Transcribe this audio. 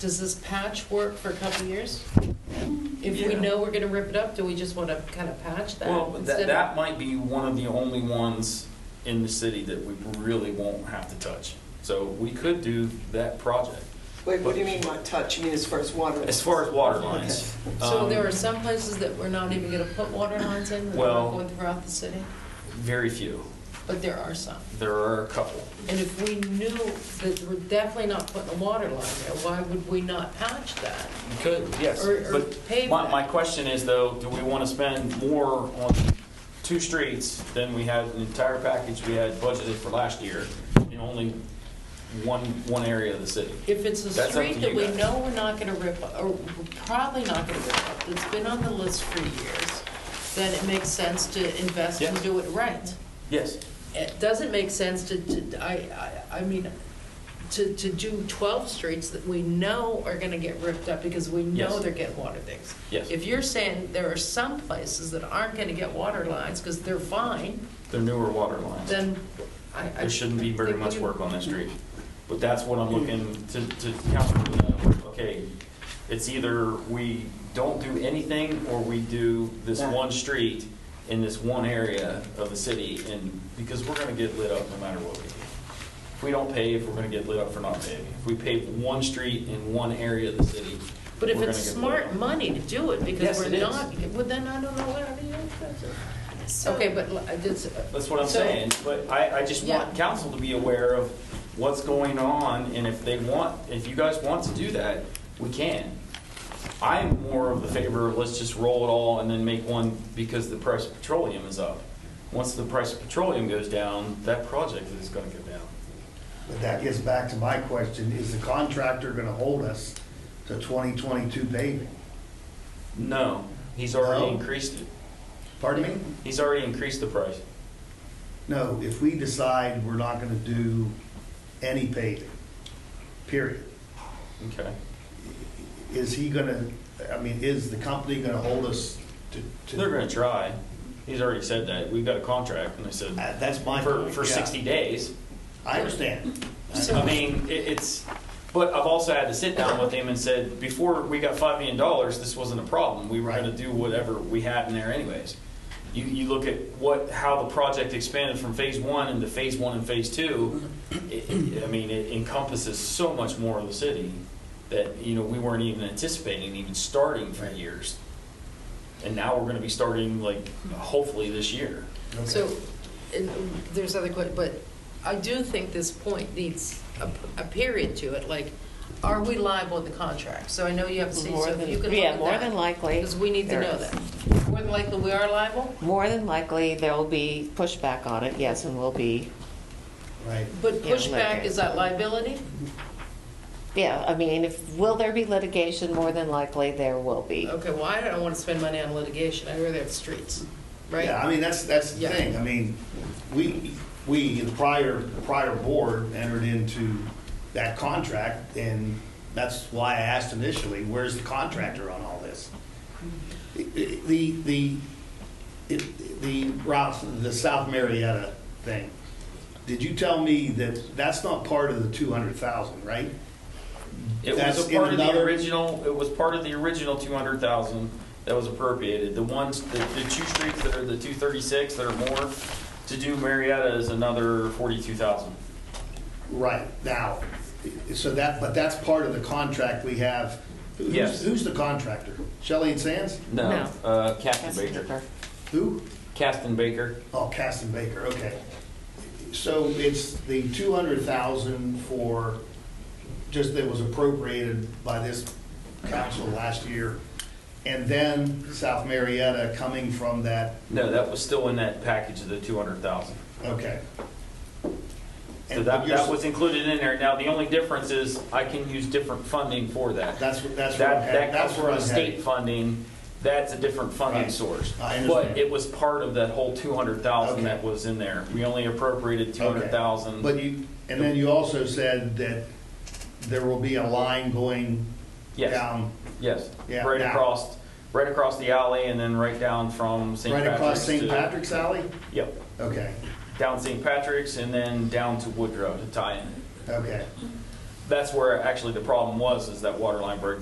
does this patch work for a couple years? If we Yeah. know we're gonna rip it up, do we just wanna kind of patch that? Well, that, instead that might be one of the only ones in the city that we really won't have to touch. So we could do that project, Wait, what do you mean by touch? You mean as far as water? as far as water lines. of- So um, there are some places that we're not even gonna put water lines in, that Well- are going throughout the city, Very few. but there are some. There are a couple. And if we knew that we're definitely not putting a water line there, why would we not patch that? You could, yes. Or- or But pave my, that. my question is though, do we want to spend more on two streets than we had an entire package we had budgeted for last year in only one, one area of the city? If it's a That's up street to that you we guys. know we're not gonna rip, up- or we're probably not gonna rip up, that's been on the list for years, then it makes sense to invest and Yeah. do it right. Yes. It doesn't make sense to, to- I, I, I mean, to, to do 12 streets that we know are gonna get ripped up because we know Yes. they're getting water things. Yes. If you're saying there are some places that aren't gonna get water lines because they're fine, They're newer water lines. then I. I There shouldn't be very think much we- work on that street. But that's what I'm looking to, to council to know, okay, it's either we don't do anything or we do this That. one street in this one area of the city and, because we're gonna get lit up no matter what we do. If we don't pave, we're gonna get lit up for not paving. If we pave one street in one area of the city. But if we're it's gonna get lit smart up. money to do it, because Yes, we're it is. not, well, then I don't know what I mean. that's- So- Okay, but li- it's. That's what I'm so- saying, but I, I just want Yeah. council to be aware of what's going on, and if they want, if you guys want to do that, we can. I'm more of the favor of let's just roll it all and then make one because the price of petroleum is up. Once the price of petroleum goes down, that project is gonna go down. But that gets back to my question, is the contractor gonna hold us to 2022 paving? No, he's already No. increased it. Pardon me? He's already increased the price. No, if we decide we're not gonna do any paving, period, Okay. is he gonna, I mean, is the company gonna hold us to? to- They're gonna try. He's already said that. We've got a contract, and they Uh, said, That's my for, point. for yeah. 60 days. I understand. I mean, it, it's, but I've also had to sit down with him and said, before we got five million dollars, this wasn't a problem. We were gonna Right. do whatever we had in there anyways. You, you look at what, how the project expanded from phase one into phase one and phase two, it, it- I mean, it encompasses so much more of the city that, you know, we weren't even anticipating even starting for years. And now we're gonna be starting like, hopefully this year. Okay. So, and um, there's other que, but I do think this point needs a, a period to it, like, are we liable in the contract? So I know you have to see, More so if than- you can look at that. yeah, more than likely Because we need to there know is. that. More than likely, we are liable, More than likely, there'll be pushback on it, yes, and will be, Right. but Yeah, pushback, okay. is that liability? yeah, I mean, if, will there be litigation? More than likely, there will be. Okay, well, I don't want to spend money on litigation, I rather have streets, right? Yeah, I mean, that's, that's the Yeah. thing. I mean, we, we, the prior, prior board entered into that contract, and that's why I asked initially, where's the contractor on all this? I- I- The, the, it- the Ralph, the South Marietta thing, did you tell me that that's not part of the 200,000, right? It That's was a in part of the another- original, it was part of the original two hundred thousand that was appropriated. The ones, the, the two streets that are the two thirty-six that are more to do Marietta is another forty-two thousand. Right, now, so that, but that's part of the contract we have. Who's- Yes. Who's the contractor? Shelley and Sands? No, No. uh, Captain That's Baker. different. Who? Captain Baker. Oh, Caston Baker, okay. So it's the two hundred thousand for, just that was appropriated by this council last year. And then South Marietta coming from that, No, that was still in that package of the two hundred thousand. okay. So And that, you're- that was included in there. Now, the only difference is I can use different funding for that. That's, what- that's where I'm That, headed, that that's comes where from I'm state headed. funding, that's a different funding Right. source. I understand. But it was part of that whole two hundred thousand Okay. that was in there. We only appropriated two hundred thousand. But you, and then you also said that there will be a line going Yes. down, Yes, Yeah, right now. across, right across the alley and then right down from St. right Patrick's. across to- St. Patrick's Alley? Yep, Okay, down St. Patrick's and then down to Woodrow to tie in. okay. that's where actually the problem was, is that water line break